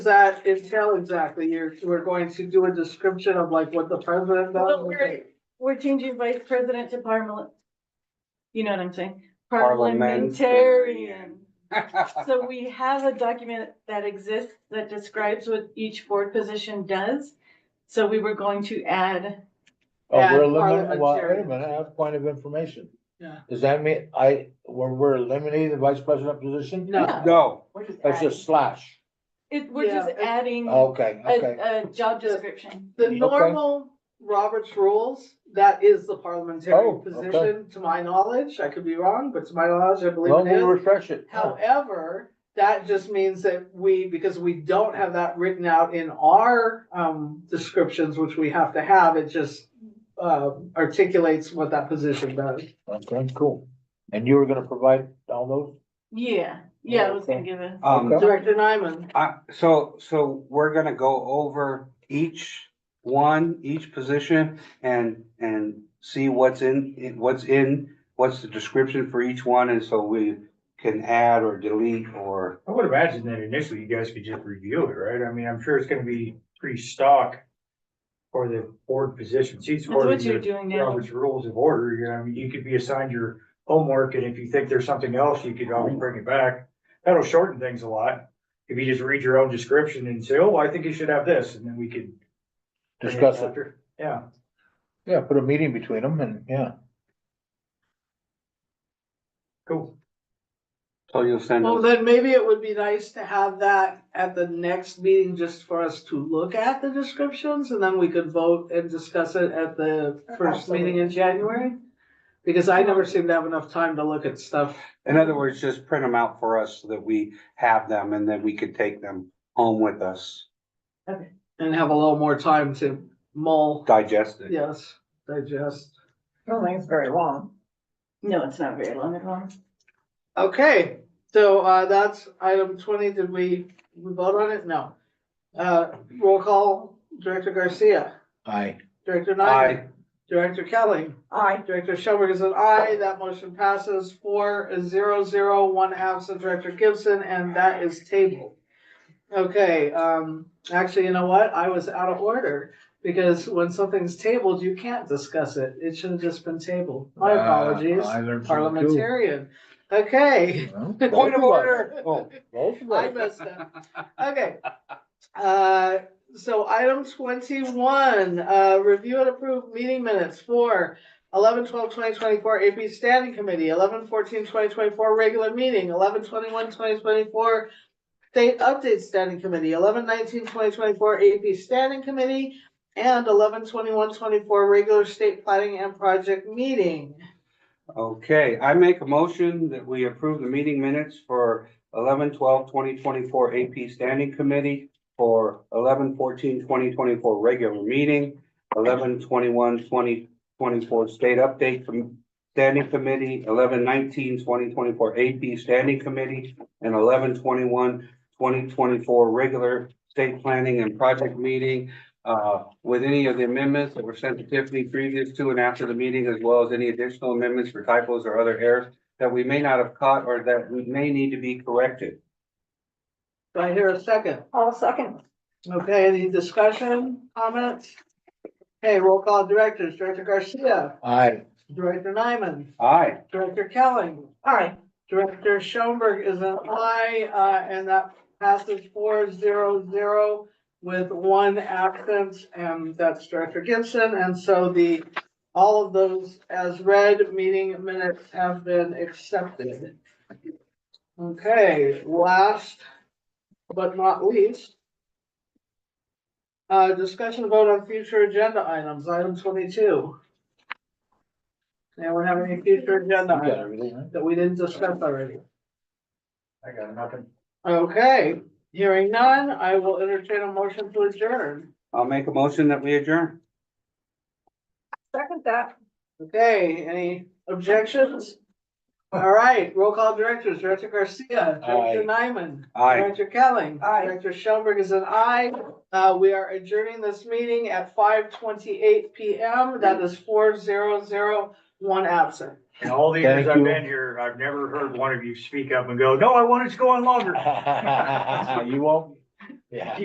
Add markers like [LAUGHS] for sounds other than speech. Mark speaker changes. Speaker 1: that entail exactly? You're, we're going to do a description of like what the president does?
Speaker 2: Well, we're, we're changing vice president to parliament. You know what I'm saying? Parliamentarian.
Speaker 3: Parliamentarian.
Speaker 2: So we have a document that exists that describes what each board position does. So we were going to add,
Speaker 4: Oh,
Speaker 1: Yeah,
Speaker 4: we're eliminating, well, wait a
Speaker 1: parliamentarian.
Speaker 4: minute, I have a point of information.
Speaker 1: Yeah.
Speaker 4: Does that mean I, we're, we're eliminating the vice president position?
Speaker 1: No,
Speaker 3: [LAUGHS] No,
Speaker 5: We're just
Speaker 4: That's
Speaker 5: adding.
Speaker 4: just slash.
Speaker 2: it, we're just
Speaker 1: Yeah, it-
Speaker 2: adding a,
Speaker 4: Okay, okay.
Speaker 2: a job description.
Speaker 1: the
Speaker 4: Okay.
Speaker 1: normal Robert's rules, that is the
Speaker 4: Oh,
Speaker 1: parliamentary
Speaker 4: okay.
Speaker 1: position, to my knowledge. I could be wrong, but to my knowledge, I
Speaker 4: Well,
Speaker 1: believe it
Speaker 4: we'll
Speaker 1: is.
Speaker 4: refresh it.
Speaker 1: However, that just means that we, because we don't have that written out in our um descriptions, which we have to have, it just uh articulates what that position does.
Speaker 4: Okay, cool. And you were gonna provide all those?
Speaker 2: Yeah, yeah, I was gonna
Speaker 4: Okay.
Speaker 2: give a,
Speaker 3: um,
Speaker 4: Okay.
Speaker 1: Director Nyman.
Speaker 3: I, so, so we're gonna go over each one, each position and, and see what's in, what's in, what's the description for each one, and so we can add or delete or,
Speaker 6: I would imagine that initially you guys could just review it, right? I mean, I'm sure it's gonna be pretty stock for the board positions. Each
Speaker 2: that's
Speaker 6: board
Speaker 2: what
Speaker 6: is
Speaker 2: you're
Speaker 6: a-
Speaker 2: doing now.
Speaker 6: Robert's Rules of Order, you know, I mean, you could be assigned your homework, and if you think there's something else, you could always bring it back. That'll shorten things a lot. If you just read your own description and say, oh, I think you should have this, and then we could. bring
Speaker 4: Discuss it.
Speaker 6: after. Yeah,
Speaker 4: Yeah, put a meeting between them and, yeah.
Speaker 6: cool.
Speaker 3: so you'll send
Speaker 1: Well,
Speaker 3: us.
Speaker 1: then maybe it would be nice to have that at the next meeting just for us to look at the descriptions and then we could vote and discuss it at the first meeting in January. Because I never seem to have enough time to look at stuff.
Speaker 3: In other words, just print them out for us so that we have them and then we can take them home with us,
Speaker 1: And have a little more time to mull,
Speaker 3: digest it.
Speaker 1: yes, digest.
Speaker 5: I don't think it's very long.
Speaker 2: No, it's not very long at all.
Speaker 1: Okay, so, uh, that's item twenty. Did we, we vote on it? No. Uh, roll call, Director Garcia,
Speaker 4: Aye.
Speaker 1: Director
Speaker 3: Aye.
Speaker 1: Nyman, Director Kelly.
Speaker 5: I,
Speaker 1: Director Schoenberg is an aye. That motion passes four zero zero, one absent, Director Gibson, and that is tabled. Okay, um, actually, you know what? I was out of order because when something's tabled, you can't discuss it. It should have just been tabled. My apologies.
Speaker 4: Uh, I learned something too.
Speaker 1: Parliamentarian. Okay. [LAUGHS]
Speaker 4: Well,
Speaker 3: Point of
Speaker 4: both us.
Speaker 3: order. Oh,
Speaker 4: Both of
Speaker 1: I
Speaker 4: us.
Speaker 1: messed up. Okay. Uh, so item twenty-one, uh, review and approve meeting minutes for 11-12-2024 AP Standing Committee, 11-14-2024 regular meeting, 11-21-2024 State Update Standing Committee, 11-19-2024 AP Standing Committee, and 11-21-24 regular state planning and project meeting.
Speaker 3: Okay, I make a motion that we approve the meeting minutes for 11-12-2024 AP Standing Committee for 11-14-2024 regular meeting, 11-21-2024 State Update Com- Standing Committee, 11-19-2024 AP Standing Committee, and 11-21-2024 regular state planning and project meeting uh, with any of the amendments that were sent to Tiffany previous to and after the meeting, as well as any additional amendments for typos or other errors that we may not have caught or that we may need to be corrected.
Speaker 1: Do I hear a second?
Speaker 5: all second.
Speaker 1: Okay, any discussion, comments? Okay, roll call directors, Director Garcia,
Speaker 4: Aye.
Speaker 1: Director Nyman,
Speaker 3: Aye.
Speaker 1: Director Kelling,
Speaker 5: I,
Speaker 1: Director Schoenberg is an aye, uh, and that passes four zero zero with one absence, and that's Director Gibson, and so the, all of those as read, meeting minutes have been accepted. Okay, last but not least. Uh, discussion vote on future agenda items, item twenty-two. Anyone have any future agenda
Speaker 4: You got
Speaker 1: items?
Speaker 4: everything, right?
Speaker 1: that we didn't discuss already.
Speaker 6: I
Speaker 1: [LAUGHS]
Speaker 6: got nothing.
Speaker 1: Okay, hearing none, I will entertain a motion to adjourn.
Speaker 3: I'll make a motion that we adjourn.
Speaker 5: second that.
Speaker 1: Okay, any objections? All right, roll call directors, Director Garcia, Director Nyman.
Speaker 3: Aye.
Speaker 1: Director Kelling.
Speaker 5: Aye.
Speaker 1: Director Schoenberg is an aye. Uh, we are adjourning this meeting at five twenty-eight PM. That is four zero zero, one absent.
Speaker 6: In all the years
Speaker 4: Thank
Speaker 6: I've
Speaker 4: you.
Speaker 6: been here, I've never heard one of you speak up and go, no, I want it to go on longer.
Speaker 4: [LAUGHS] You won't, Yeah.